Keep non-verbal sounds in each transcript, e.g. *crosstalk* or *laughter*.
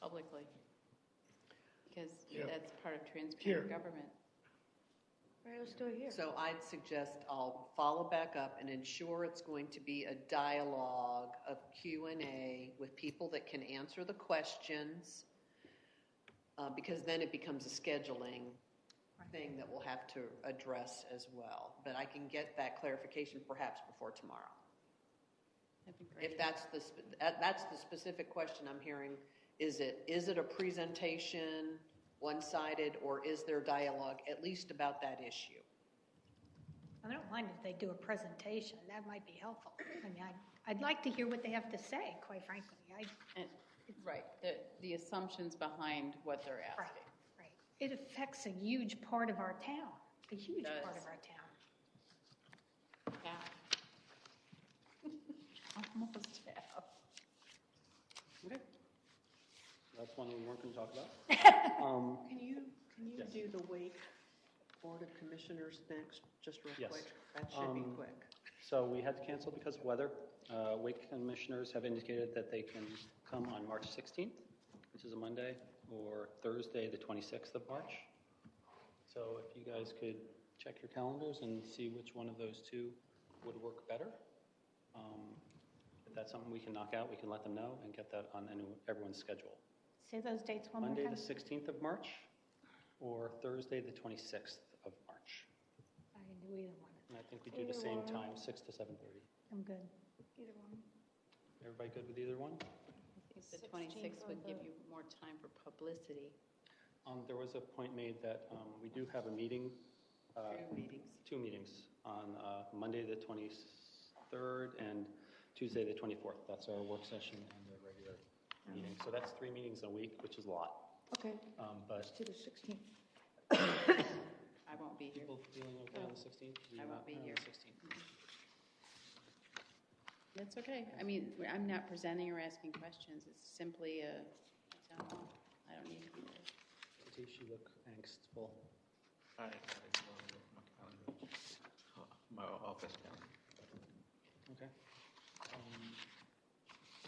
publicly, because Yeah. that's part of Here. transparent government. Right, let's do it here. So I'd suggest I'll follow back up and ensure it's going to be a dialogue of Q and A with people that can answer the questions. Uh, because then it becomes a scheduling thing that we'll have to address as well. But I can get that clarification perhaps before tomorrow. That'd be great. If that's the, sp- that- that's the specific question I'm hearing, is it, is it a presentation, one-sided, or is there dialogue, at least about that issue? I don't mind if they do a presentation, that might be helpful. I mean, I'd, I'd like to hear what they have to say, quite frankly. I, And- Right, the, the assumptions behind what they're right, asking. right. It affects a huge part of our town, a huge Does. part of our town. Half. *laughs* Almost half. Okay. That's one we weren't going to talk *laughs* about. Um, Can you, can you Yes. do the Wake Board of Commissioners next, just real Yes. quick? That should be Um, quick. So we had to cancel because of weather. Uh, Wake commissioners have indicated that they can come on March 16th, which is a Monday, or Thursday, the 26th of March. So if you guys could check your calendars and see which one of those two would work better. Um, If that's something we can knock out, we can let them know and get that on any- everyone's schedule. Say those dates one more Monday, the time. 16th of March, or Thursday, the 26th of March. I can do either one. And I think we do the same time, 6 to 7:30. I'm good. Everybody good with either one? I think the 26th would give you more time for publicity. Um, There was a point made that um, we do have a meeting, uh, Two meetings. two meetings, on uh, Monday, the 23rd, and Tuesday, the 24th. That's our work session and our regular meeting. So that's three meetings a week, which is a lot. Okay, Um, But to the 16th. I won't be here. people feeling okay on the 16th? Do you I won't not be plan on here. the 16th? That's okay. I mean, I'm not presenting or asking questions. It's simply a, a town hall. I don't need to be there. Tish, you look angstful. I, I my calendar, my office calendar. Okay. Um,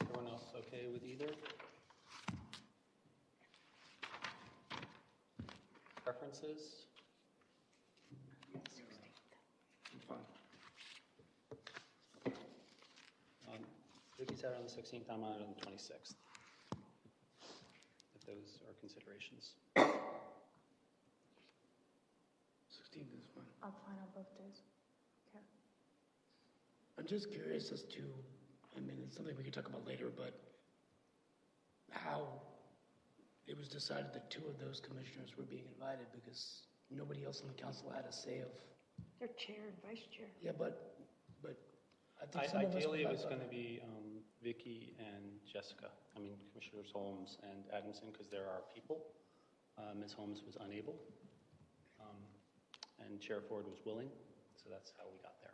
Everyone else okay with either? Preferences? Um, Vicky's out on the 16th, I'm out on the 26th. If those are considerations. Sixteenth is fine. I'm fine on both days. Okay. I'm just curious as to, I mean, it's something we could talk about later, but how it was decided that two of those commissioners were being invited because nobody else on the council had a say of, They're chair and vice chair. yeah, but, but I think some of us. Ideally, it would was like- going to be um, Vicky and Jessica, I mean Commissioners Holmes and Adamson, because there are people. Uh, Ms. Holmes was unable, um, and Chair Ford was willing, so that's how we got there.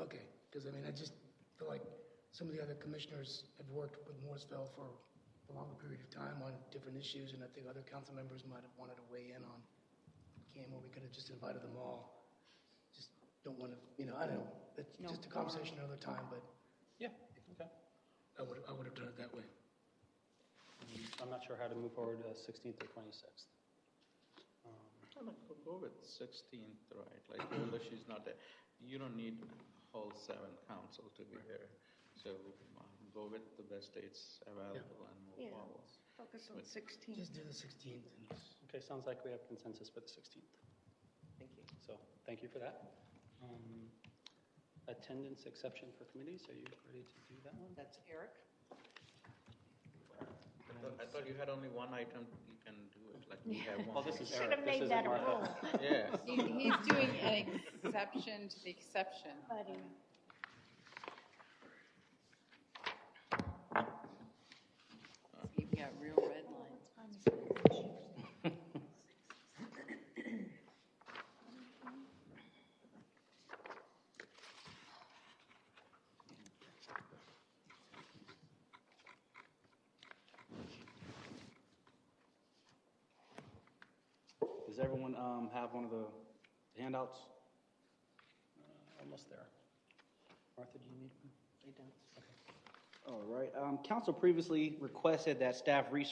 Okay, because I mean, I just feel like some of the other commissioners have worked with Mooresville for a longer period of time on different issues, and I think other council members might have wanted to weigh in on Cam, or we could have just invited them all. Just don't want to, you know, I don't know, it's No. just a conversation another time, but Yeah, okay. I would, I would have done it that way. I'm not sure how to move forward uh, 16th or Um, 26th. I'm gonna go- go with sixteenth, right, like, although she's not there, you don't need whole seven council to be here. So um, go with the best dates available and Yeah. move forward. Focus on But- 16th. Just do the 16th. and- Okay, sounds like we have consensus for the 16th. Thank you. So, thank you for that. Um, Attendance exception for committees, are you ready to do that one? That's Eric. I thought- I thought you had only one item, you can do it, like, we have one. Well, this is Should Eric, have this made isn't that a Martha. rule, *laughs* Yeah. He- He's doing an exception to the exception. buddy. You've got real red lines. Does everyone um, have one of the handouts? Almost there. Martha, do you need one? He does. All right. Um, Council previously requested that staff research